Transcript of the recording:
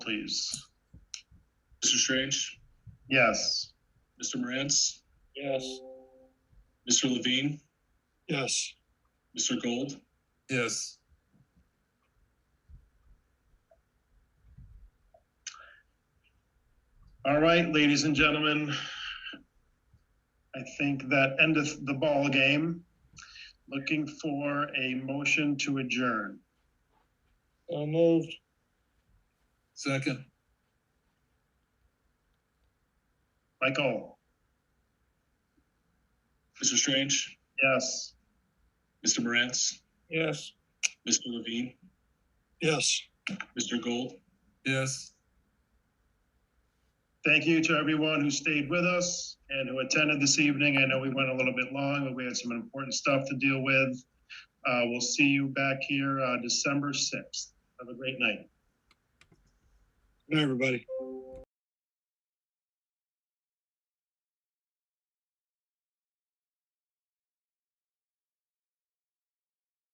please. Mr. Strange, Yes. Mr. Morantz, Yes. Mr. Levine, Yes. Mr. Gold, Yes. All right, ladies and gentlemen. I think that endeth the ball game. Looking for a motion to adjourn. So moved. Second, Michael, Mr. Strange, yes. Mr. Morantz, Yes. Mr. Levine, Yes. Mr. Gold, yes. Thank you to everyone who stayed with us and who attended this evening. I know we went a little bit long, but we had some important stuff to deal with. Uh, we'll see you back here, uh, December sixth. Have a great night. Good night, everybody.